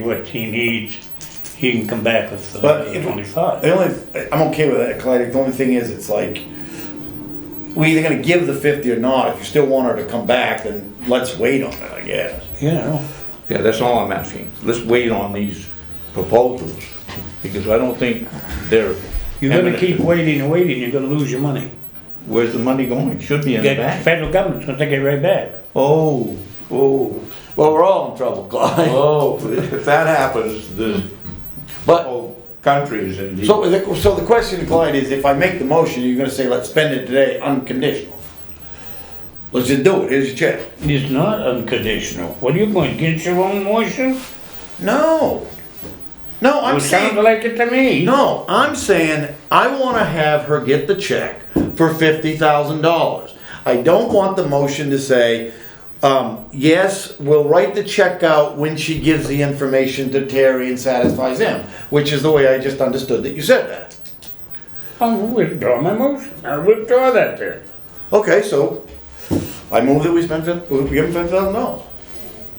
what he needs, he can come back with But uh, it- twenty-five. The only, I'm okay with that, Clyde. The only thing is, it's like, we either gonna give the fifty or not. If you still want her to come back, then let's wait on it, I guess. You know, Yeah, that's all I'm asking. Let's wait on these proposals, because I don't think they're. you're gonna keep imminent. waiting and waiting, you're gonna lose your money. Where's the money going? Should be in the The bank. federal government's gonna take it right back. Oh, oh, Well, we're all in trouble, Clyde. oh, if that happens, the But, whole country is in deep. So, the- so the question, Clyde, is if I make the motion, you're gonna say, let's spend it today unconditional. Let's just do it. Here's your check. It's not unconditional. What are you going, against your own motion? No. No, I'm It saying. sounds like it to me. No, I'm saying I want to have her get the check for fifty thousand dollars. I don't want the motion to say, um, yes, we'll write the check out when she gives the information to Terry and satisfies him, which is the way I just understood that you said that. I'll withdraw my motion. I'll withdraw that there. Okay, so I move that we spend, fif- we give him fifty thousand dollars.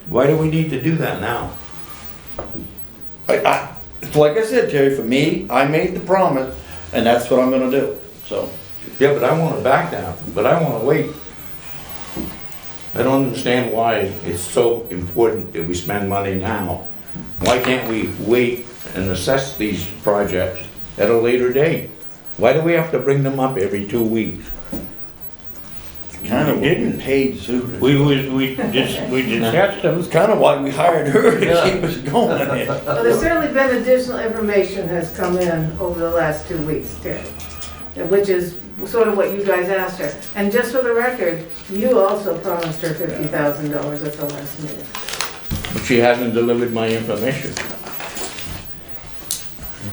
Why do we need to do that now? I, I, it's like I said, Terry, for me, I made the promise, and that's what I'm gonna do, so. Yeah, but I wanna back down, but I wanna wait. I don't understand why it's so important that we spend money now. Why can't we wait and assess these projects at a later date? Why do we have to bring them up every two weeks? Kind of didn't. Paid Zuter. We, we, we dis we discussed them. It's kind of why we hired her to keep us going. Well, there's certainly been additional information has come in over the last two weeks, Terry, which is sort of what you guys asked her. And just for the record, you also promised her fifty thousand dollars at the last meeting. But she hasn't delivered my information.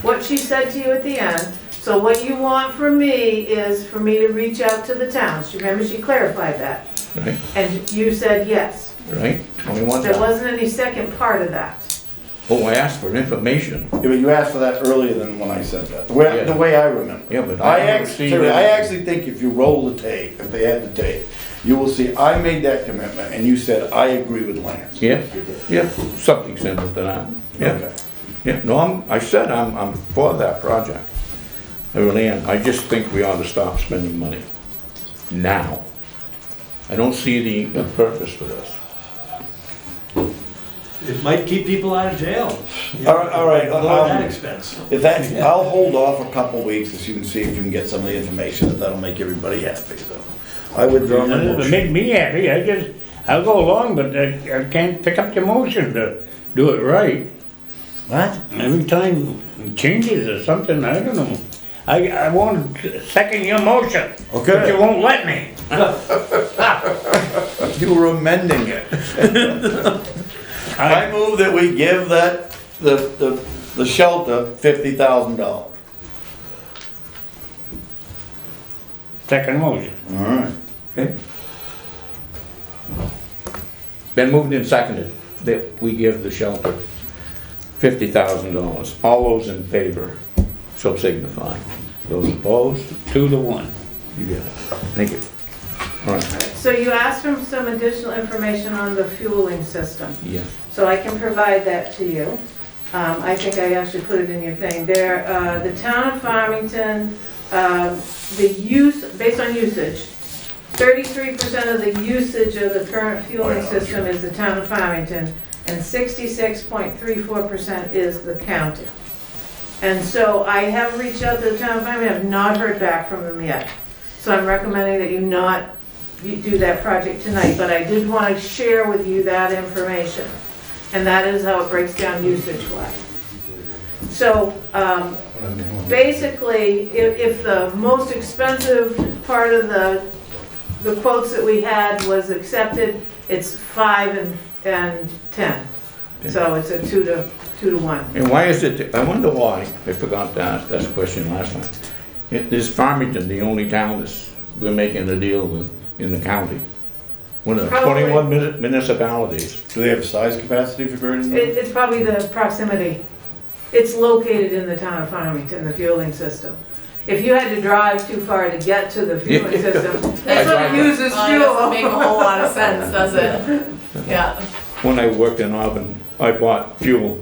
What she said to you at the end, so what you want from me is for me to reach out to the towns. Remember, she clarified that. Right. And you said yes. Right, twenty-one There dollars. wasn't any second part of that. Oh, I asked for information. Yeah, but you asked for that earlier than when I said that, the way, the Yeah. way I remember. Yeah, but I I haven't actually, seen I it. actually think if you roll the tape, if they had the tape, you will see, I made that commitment, and you said, I agree with Lance. Yeah, yeah, something similar to that, yeah. Okay. Yeah, no, I'm, I said I'm, I'm for that project. I really am. I just think we ought to stop spending money now. I don't see the purpose for this. It might keep people out of jail. All right, all right, Lower that um, expense. if that, I'll hold off a couple weeks, as you can see, if you can get some of the information, if that'll make everybody happy, so. I withdraw my It motion. made me happy. I just, I'll go along, but I, I can't pick up the motion to do it right. What? Every time it changes or something, I don't know. I, I want to second your motion. But Okay. you won't let me. You were amending it. I move that we give that, the, the, the shelter fifty thousand dollars. Second motion. All right. Okay. Been moved and seconded that we give the shelter fifty thousand dollars. All those in favor, so signify. Those opposed, Two to one. you get it. Thank you. All right, So you asked for some additional information on the fueling system. yes. So I can provide that to you. Um, I think I actually put it in your thing. There, uh, the town of Farmington, um, the use, based on usage, thirty-three percent of the usage of the current fueling system is the town of Farmington, and sixty-six point three four percent is the county. And so I have reached out to the town of Farmington, have not heard back from them yet. So I'm recommending that you not you do that project tonight, but I did want to share with you that information. And that is how it breaks down usage-wise. So, um, basically, if, if the most expensive part of the, the quotes that we had was accepted, it's five and, and 10. So it's a two to, two to one. And why is it, I wonder why, I forgot to ask that question last time. It- Is Farmington the only town that's, we're making a deal with in the county? One of the Probably. twenty-one muni- municipalities. Do they have a size capacity for Gurdon? It, it's probably the proximity. It's located in the town of Farmington, the fueling system. If you had to drive too far to get to the fueling system, that's what uses Uh, doesn't make a fuel. whole lot of sense, does it? Yeah. When I worked in Auburn, I bought fuel